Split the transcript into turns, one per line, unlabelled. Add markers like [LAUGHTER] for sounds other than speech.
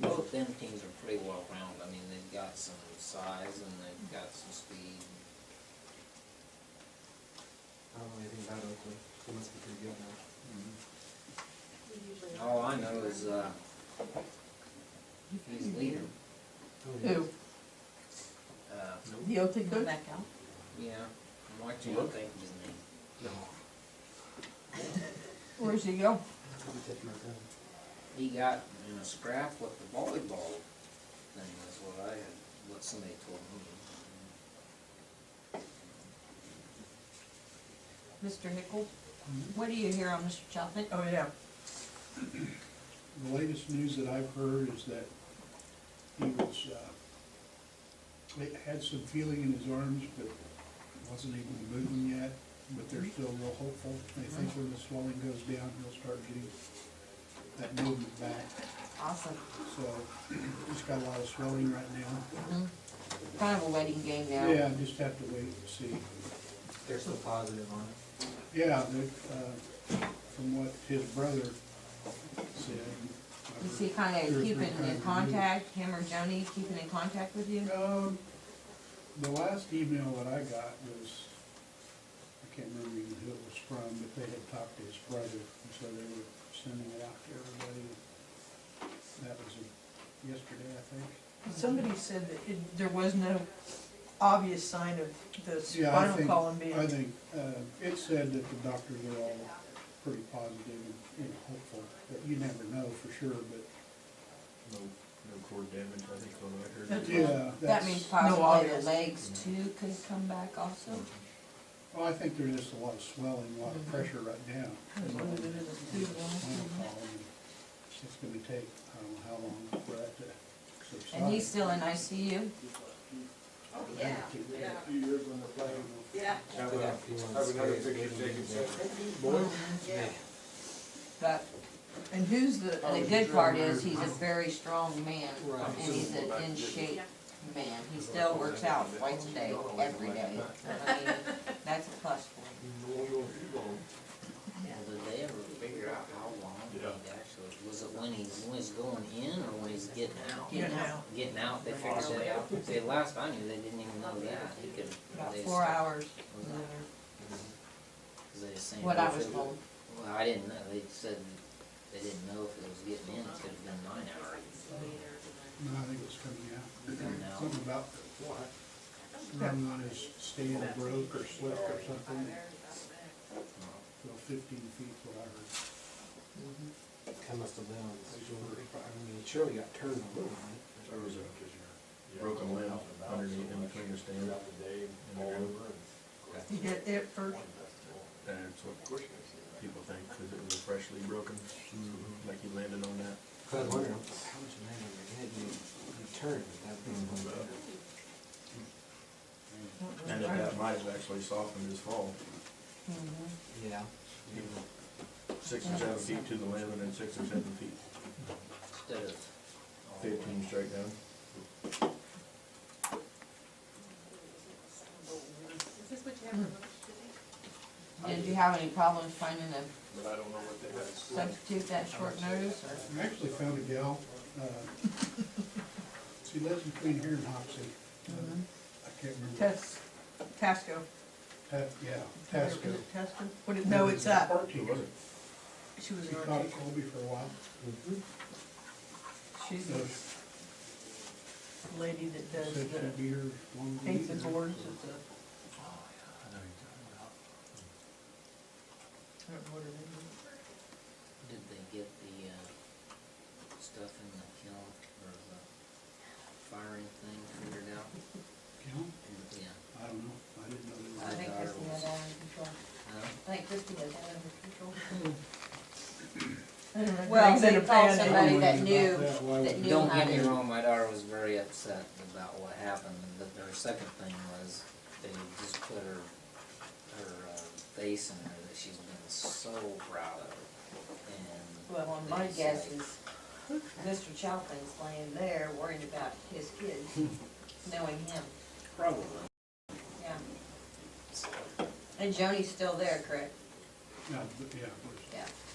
them teams are pretty well rounded. I mean, they've got some size and they've got some speed.
I don't know anything about Oakland. He must be pretty good now.
All I know is, uh, he's leader,
Who,
uh,
the OT
Go
coach?
back out.
yeah, I'm watching, I think his name.
No.
Where's he go?
I'm taking my gun.
He got in a scrap with the volleyball thing, is what I had, what somebody told me.
Mr. Nichol, what do you hear on Mr. Choppett?
Oh, yeah.
The latest news that I've heard is that he was, uh, he had some feeling in his arms, but wasn't able to move them yet, but
Mm-hmm.
they're still real hopeful. They think when the swelling goes down, he'll start getting that movement back.
Awesome.
So [CLEARS THROAT] he's got a lot of swelling right now.
Mm-hmm.
Kind of a waiting game now.
Yeah, just have to wait and see.
They're still positive on it.
Yeah, they, uh, from what his brother said. I've
Is he
heard
kind
two or
of
three
keeping
times a
in
week.
contact, him or Joni keeping in contact with you?
Um, the last email that I got was, I can't remember even who it was from, but they had talked to his brother, and so they were sending it out to everybody. That was yesterday, I think.
Somebody said that it, there was no obvious sign of the
Yeah, I
spinal
think,
column being.
I think, uh, it said that the doctors are all pretty positive and, and hopeful, but you never know for sure, but,
No, no core damage, I think on record.
That's-
yeah,
That
that's,
means
obvious.
possibly the legs too could come back also?
well, I think there's just a lot of swelling, a lot of pressure right now.
That's what it is.
It's gonna take, I don't know how long for that to subside.
And he's still in ICU?
Yeah.
Have a- have another picture taken, sir.
But
And who's the,
the good part is, Oh, he's a very strong man,
Right.
and he's an in shape man. He still works out twice a day, every day. I mean, That's a plus for him.
Well, did they ever figure out how long he
Yeah.
actually, was it when he's, when he's going in or when he's getting out?
Yeah, now,
Getting out, they figured that out, they, last I knew, they didn't even know that, he could.
about
they
four
just-
hours,
was that- was they saying
what I
if
was
it
told.
Well, I didn't know, they said, they didn't know if it was getting in, it could've been nine hours.
No, I think it's coming
Coming
out.
out.
Something about what? Running on his stand broke or slipped or something. Well, fifteen feet, what I heard.
Kind must have been on the shoulder. I mean, it surely got turned a little bit.
There was a broken limb underneath in between the stand and the ground.
you get it first,
That's what people think, cause it was freshly broken, like he landed on that.
Cause I was wondering, I'm like, how much land on your head you, you turned at that point?
And that that might have actually softened his fall,
Mm-hmm.
Yeah. Mm-hmm.
six or seven feet to the limb and then six or seven feet,
Instead of. all the way.
fifteen straight down.
Did you have any problems finding a
But I don't know what they had.
substitute that short notice, or?
I actually found a gal, uh, [LAUGHS] she lives between here and Hoxie. Uh, I can't remember.
Tes, Tasco.
Ta- Yeah, Tasco.
Tasco, what, it- no, it's uh, that,
Art
Who
teacher.
was it?
she was
She
an
taught
architect,
at Colby for a while.
Mm-hmm.
she's
So
the lady that does
Said
the,
she'd be here one
paints the
week.
boards at the.
Oh,
I don't know what her name is.
Did they get the, uh, stuff in the kiln or the firing thing figured out?
Gal?
Yeah.
I don't know, I didn't know
I
they
think Christie had that under control.
Huh?
I think Christie had that under control.
I don't know.
Well,
Things in
they
a
called
pan.
were.
somebody that knew,
That, why would-
that knew
Don't
how
get me
to.
wrong, my daughter was very upset about what happened, but their second thing was they just put her, her uh, face in there that she's been so proud of. And
Well, my guess is Mr. Chopin's laying there worrying about his kids, knowing him,
probably,
yeah.
so,
And Joni's still there, correct?
Yeah, but- yeah, of course.
Yeah.